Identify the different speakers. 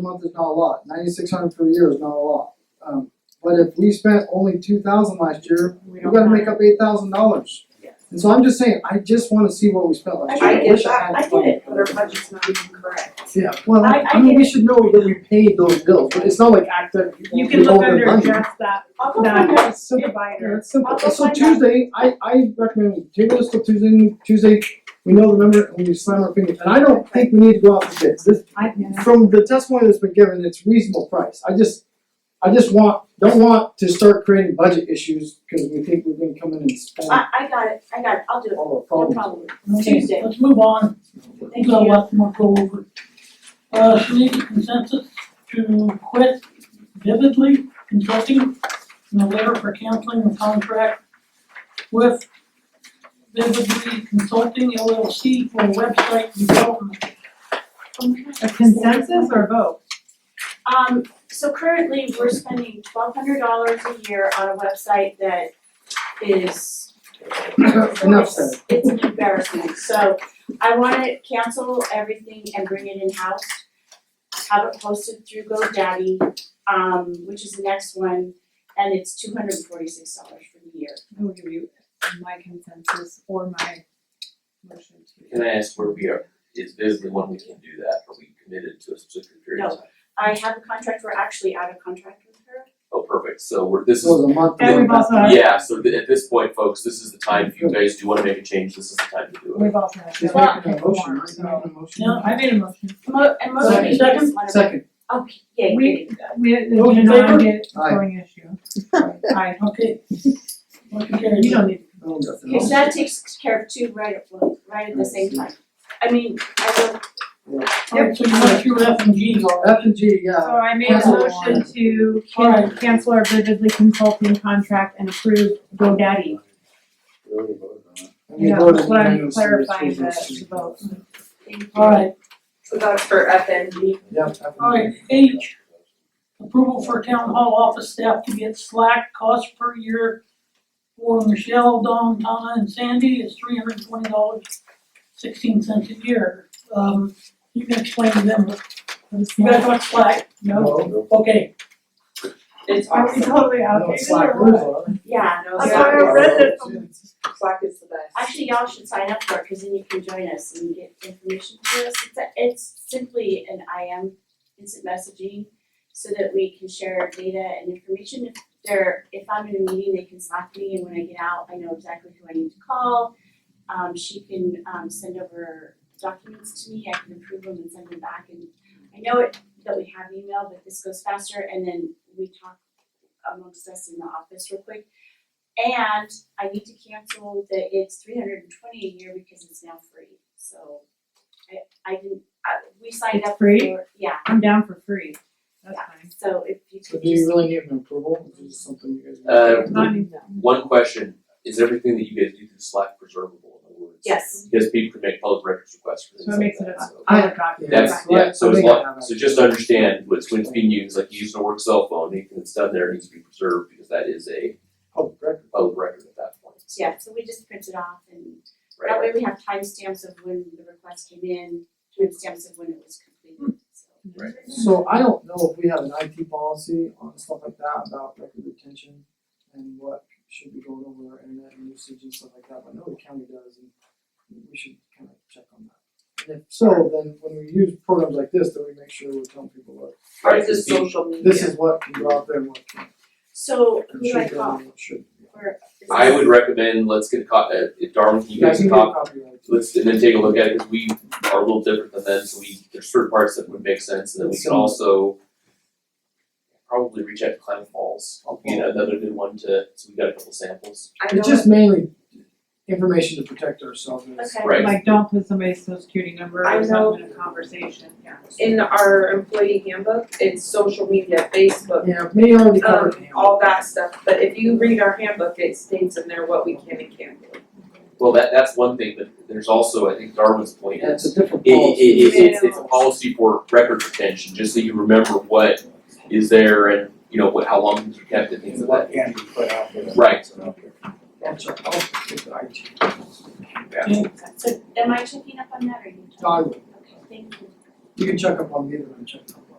Speaker 1: a month is not a lot, ninety-six hundred for the year is not a lot. Um, but if we spent only two thousand last year,
Speaker 2: We
Speaker 1: we
Speaker 2: don't
Speaker 1: gotta
Speaker 2: have-
Speaker 1: make up eight thousand dollars.
Speaker 2: Yes.
Speaker 1: And so I'm just saying, I just wanna see what we spent
Speaker 2: I
Speaker 1: last year,
Speaker 2: get
Speaker 1: I
Speaker 2: it,
Speaker 1: wish I had.
Speaker 2: I I
Speaker 1: the
Speaker 2: get it, but
Speaker 1: money.
Speaker 2: our budget's not even correct.
Speaker 1: Yeah, well,
Speaker 2: I-
Speaker 1: I
Speaker 2: I
Speaker 1: mean,
Speaker 2: get
Speaker 1: we
Speaker 2: it.
Speaker 1: should know that we paid those bills, but it's not like act that
Speaker 3: You
Speaker 1: we
Speaker 3: can
Speaker 1: owe
Speaker 3: look
Speaker 1: them
Speaker 3: under
Speaker 1: money.
Speaker 3: just that,
Speaker 2: I'll go find out.
Speaker 3: that
Speaker 1: Yeah, it's simple. Yeah,
Speaker 3: provider.
Speaker 1: it's simple.
Speaker 2: I'll go
Speaker 1: So
Speaker 2: find out.
Speaker 1: Tuesday, I I recommend we table this till Tuesday, and Tuesday, we know the number and we slam our fingers, and I don't think we need to go out for bids, this,
Speaker 2: I,
Speaker 1: from the testimony that's been given, it's reasonable price, I just, I just want, don't want to start creating budget issues, cause we think we're gonna come in and spend
Speaker 3: Ah,
Speaker 2: I, I got it, I got it, I'll do it,
Speaker 1: all our
Speaker 2: no
Speaker 1: problems.
Speaker 2: problem.
Speaker 4: Okay,
Speaker 2: Tuesday.
Speaker 4: let's move on.
Speaker 2: Thank
Speaker 4: We'll
Speaker 2: you.
Speaker 4: let them go over. Uh, should we get consensus to quit vividly consulting and a letter for canceling the contract with vividly consulting LLC for website development.
Speaker 3: A consensus or a vote?
Speaker 2: Um, so currently, we're spending twelve hundred dollars a year on a website that is.
Speaker 1: Enough said.
Speaker 2: It's an embarrassment, so I wanna cancel everything and bring it in-house. Have it posted through GoDaddy, um, which is the next one, and it's two hundred and forty-six dollars for the year.
Speaker 3: I will give you my consensus or my motion to.
Speaker 5: Can I ask where we are? Is this the one we can do that? Are we committed to a specific period of time?
Speaker 2: I have a contract, we're actually out of contract with her.
Speaker 5: Oh, perfect. So we're, this
Speaker 1: This
Speaker 5: is,
Speaker 1: was a month.
Speaker 3: And we've also had-
Speaker 5: yeah, so th- at this point, folks, this is the time, if you guys do wanna make a change, this is the time to do it.
Speaker 3: We've also had.
Speaker 1: She's
Speaker 2: Well-
Speaker 1: making a motion, right?
Speaker 3: So-
Speaker 1: Making a motion.
Speaker 4: No,
Speaker 3: I made a motion.
Speaker 2: Mo- and most of
Speaker 1: Second.
Speaker 2: you just wanna.
Speaker 1: Second,
Speaker 2: Okay, yeah, yeah,
Speaker 3: We,
Speaker 2: yeah.
Speaker 3: we, did
Speaker 4: Those in
Speaker 3: not
Speaker 4: favor?
Speaker 3: get
Speaker 1: Aye.
Speaker 3: going issue. Aye.
Speaker 4: Okay. Motion carries.
Speaker 3: You don't need,
Speaker 1: no, nothing
Speaker 2: Cause
Speaker 1: else.
Speaker 2: that takes care of two right at one, right at the same time. I mean, I
Speaker 4: Alright, so you went through F and G's already.
Speaker 1: F and G, yeah.
Speaker 3: so I made a
Speaker 1: Cancel.
Speaker 3: motion to can,
Speaker 4: Alright.
Speaker 3: cancel our vividly consulting contract and approve GoDaddy.
Speaker 1: And we
Speaker 3: Yeah,
Speaker 1: voted
Speaker 3: that's what I'm
Speaker 1: unanimously, which
Speaker 3: clarifying
Speaker 1: was
Speaker 3: the,
Speaker 1: nice.
Speaker 3: the vote.
Speaker 2: would,
Speaker 4: Alright,
Speaker 2: So that's for FND.
Speaker 1: Yeah, F and G.
Speaker 4: alright, H, Approval for town hall office staff to get slack cost per year for Michelle, Dawn, Donna, and Sandy is three hundred and twenty dollars, sixteen cents a year. Um, you can explain to them, what- you guys want slack, no?
Speaker 1: No,
Speaker 4: Okay,
Speaker 2: It's
Speaker 3: Are we totally outdated
Speaker 1: it's like,
Speaker 3: or what?
Speaker 2: Yeah, no,
Speaker 3: I'm
Speaker 2: Slack
Speaker 3: sorry, I
Speaker 2: is-
Speaker 3: read this.
Speaker 2: Slack is the best. Actually, y'all should sign up for it, cause then you can join us and get information to us. It's, a- it's simply an IM, instant messaging, so that we can share data and information. If they're, if I'm in a meeting, they can Slack me, and when I get out, I know exactly who I need to call. Um, she can, um, send over documents to me, I can approve them and send them back, and I know it, that we have email, but this goes faster, and then we talk amongst us in the office real quick. And I need to cancel that it's three hundred and twenty a year because it's now free, so I I didn't, I, we signed
Speaker 3: It's
Speaker 2: up for,
Speaker 3: free?
Speaker 2: yeah,
Speaker 3: I'm down for free, that's
Speaker 2: Yeah.
Speaker 3: fine.
Speaker 2: so if you
Speaker 1: So
Speaker 2: could
Speaker 1: do you
Speaker 2: just,
Speaker 1: really need an approval, is this something you guys?
Speaker 5: Uh,
Speaker 3: Not even that.
Speaker 5: One question, is everything that you guys do through Slack preservable in other words?
Speaker 2: yes,
Speaker 5: Because people can make public records requests for things
Speaker 3: So it
Speaker 5: like
Speaker 3: makes it
Speaker 5: that,
Speaker 3: a
Speaker 5: so.
Speaker 3: public document.
Speaker 5: That's,
Speaker 1: Right.
Speaker 5: yeah, so as
Speaker 1: Something I
Speaker 5: long,
Speaker 1: have.
Speaker 5: so just understand what's, when it's being used, like you using a work cell phone, anything that's done there needs to be preserved because that is a
Speaker 1: Oh, great.
Speaker 5: public record at that point,
Speaker 2: yeah, so we just print it off and
Speaker 5: right?
Speaker 2: that way we have timestamps of when the request came in, timestamps of when it was completed, so.
Speaker 5: Right.
Speaker 1: So I don't know if we have an IT policy on stuff like that about record retention and what should be going over our internet and usage and stuff like that, but I know the county does and we should kind of check on that. And if so, then when we use programs like this, then we make sure we're telling people, look,
Speaker 5: Right,
Speaker 6: Or
Speaker 5: because
Speaker 6: just
Speaker 5: people-
Speaker 6: social media?
Speaker 1: this is what can go out there and what can't.
Speaker 2: So who
Speaker 1: And
Speaker 2: do I
Speaker 1: should go
Speaker 2: call
Speaker 1: and what shouldn't.
Speaker 2: for? is
Speaker 5: I
Speaker 2: this-
Speaker 5: would recommend, let's get a cop, uh, if Darwin, can you guys
Speaker 1: can
Speaker 5: cop
Speaker 1: get a copy of it.
Speaker 5: let's and then take a look at it, cause we are a little different than them, so we, there's certain parts that would make sense, and then we can also probably reach out to Climate Falls, you know, another good one to, so we got a couple samples.
Speaker 6: I know
Speaker 1: It's just mainly information to protect ourselves and it's-
Speaker 2: Okay.
Speaker 5: Right.
Speaker 3: Like, don't put somebody's social security number
Speaker 6: I
Speaker 3: or
Speaker 6: know.
Speaker 3: something in a conversation, yeah.
Speaker 6: in our employee handbook, it's social media, Facebook,
Speaker 1: Yeah, maybe already covered.
Speaker 6: um, all that stuff. But if you read our handbook, it states in there what we can and can't do.
Speaker 5: Well, that that's one thing, but there's also, I think Darwin's point
Speaker 1: Yeah,
Speaker 5: is,
Speaker 1: it's a different
Speaker 5: it it
Speaker 1: policy.
Speaker 5: it it's it's a policy for record retention, just so you remember what is there and, you know, what, how long things are kept and things
Speaker 7: Things
Speaker 5: of
Speaker 7: that
Speaker 5: that.
Speaker 7: can be put out there.
Speaker 5: Right.
Speaker 1: I'm sorry, I'll get the IT.
Speaker 2: So am I checking up on that or you?
Speaker 1: No, I will.
Speaker 2: Okay, thank you.
Speaker 1: You can check up on me, then I check up.